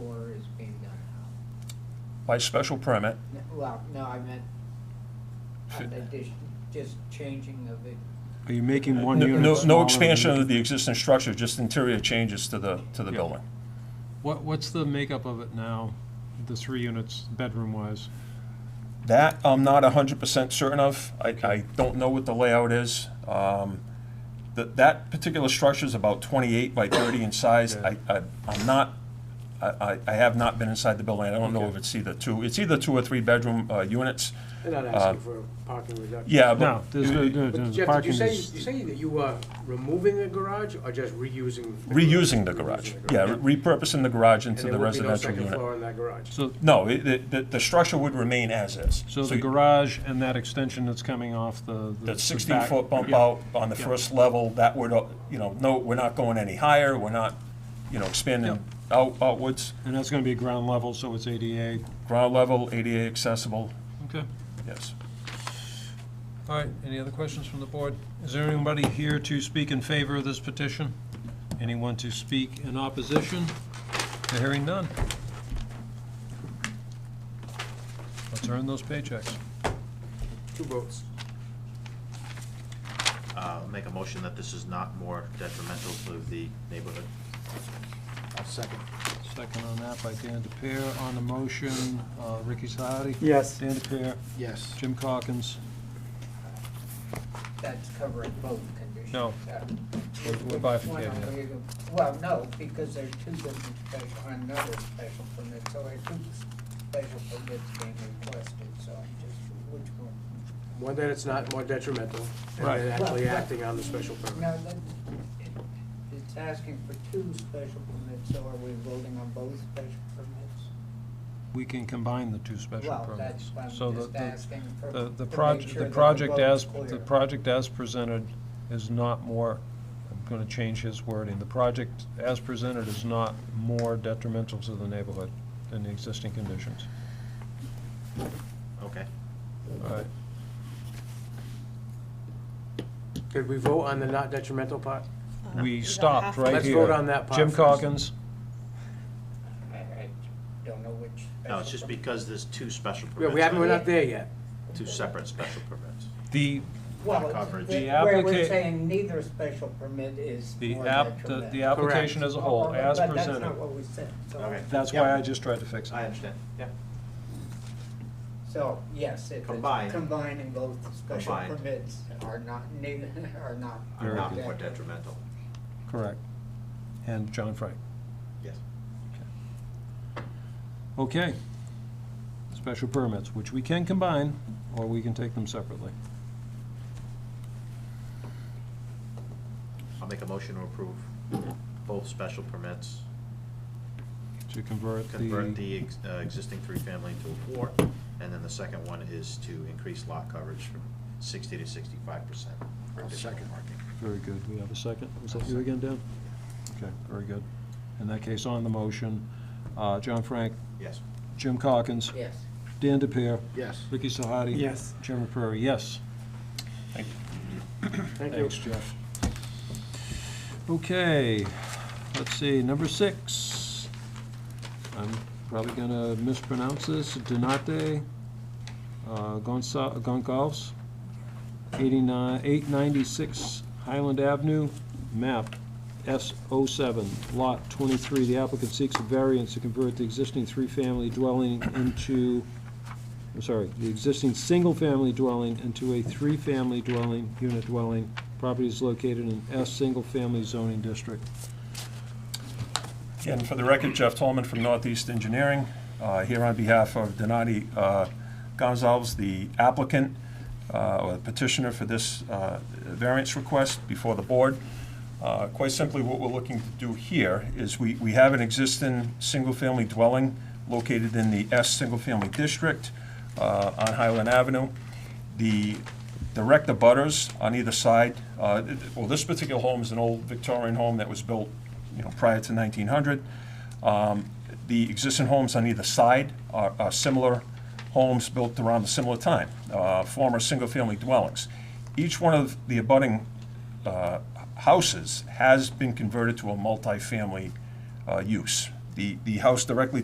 by special permit, N- Well, no, I meant, I Should- meant just- just changing of it. Are you making no, one unit no smaller no than- expansion of the existing structure, just interior changes to the, to the building. What, what's the makeup of it now, the three units, bedroom-wise? That I'm not hundred percent certain of. I, I don't know what the layout is. Um, that, that particular structure is about twenty-eight by thirty in size. I, Yeah. I, I'm not, I, I, I have not been inside the building. I don't know Okay. if it's either two, it's either two or three bedroom, uh, units. They're not Uh, asking for a parking reduction. Yeah, No, but. there's, no- no, But no, Jeff, did parking you say, is, you say that you are removing the garage or just reusing? the garage? Reusing the garage, Reusing the yeah, repurposing the garage into the And there residential would be no second unit. floor in that garage? so, No, it, the, the, the structure would remain as is. so the you- garage and that extension that's coming off the. That back- sixteen-foot bump yeah. out on the Yeah. first level, that would, uh, you know, no, we're not going any higher, we're not, you know, Yep. expanding out, outwards. And that's gonna be ground level, so it's ADA. Ground level, ADA accessible, Okay. yes. All right, any other questions from the board? Is there anybody here to speak in favor of this petition? Anyone to speak in opposition? Hearing none. Let's earn those paychecks. Two votes. uh, make a motion that this is not more detrimental to the neighborhood. Second on that by Dan DePere. On the motion, uh, Ricky Sahadi. Yes. Dan DePere, Yes. Jim Calkins. That's covering both conditions. No, Uh, we're- we're One bifurcating on it. legal- Well, no, because there are two different special, another special permit, so there are two special permits being requested, so I'm just, which one? One that it's not more detrimental, and Right. then actually Well, but- acting on the special permit. No, that, it, it's asking for two special permits, so are we voting on both special permits? We can combine the two special Well, that's permits. what I'm So the- just the- asking for- The, the to make project, sure the that project vote as, is clear. the project as presented is not more, I'm gonna change his wording, the project as presented is not more detrimental to the neighborhood than the existing conditions. Okay. All right, Could we vote on the not detrimental part? we stopped right Let's here. vote on that part Jim first. Calkins, I, I don't know which. No, it's just because there's two special Yeah, permits. we haven't, we're right? not there yet. Two separate special permits. the, Well, it's- coverage. the- The Where we're applica- saying neither special permit is the more app, the- detrimental. the application as a whole, as But that's not presented. what we said, so, Okay. That's why I just tried to fix it. I understand. Yeah. so, yes, if Combine. it's combining both special Combined. permits are not neither, are not. Very Not good. more detrimental. Correct. And John Frank. Yes. Okay. Special permits, which we can combine, or we can take them separately. I'll make a motion to approve both special permits, To convert the. convert the ex- uh, existing three-family to a four, and then the second one is to increase lot coverage from sixty to sixty-five percent. Second. Very good. We have a second. Was that you again, Dan? Okay, very good. In that case, on the motion, uh, John Frank, Yes. Jim Calkins, Yes, Dan DePere, Yes. Ricky Sahadi. Yes. Jim Prairie, yes. Thank you. Thanks, Jeff. Okay, let's see, number six. I'm probably gonna mispronounce this, Donate uh, Gonsa- Goncalves, 89 896 Highland Avenue, map S07, lot 23. The applicant seeks a variance to convert the existing three-family dwelling into I'm sorry, the existing single-family dwelling into a three-family dwelling, unit dwelling. Property is located in S single-family zoning district. And for the record, Jeff Tolman from Northeast Engineering, uh, here on behalf of Donati uh, Gonzalez, the applicant, uh, or petitioner for this uh, variance request before the board. Uh, Quite simply, what we're looking to do here is we we have an existing single-family dwelling located in the S single-family district uh, on Highland Avenue. The direct abutters on either side, uh, it- well, this particular home is an old Victorian home that was built, you know, prior to 1900. Um, The existing homes on either side are are similar homes built around a similar time, uh, former single-family dwellings. Each one of the abutting uh, houses has been converted to a multifamily uh, use. The The house directly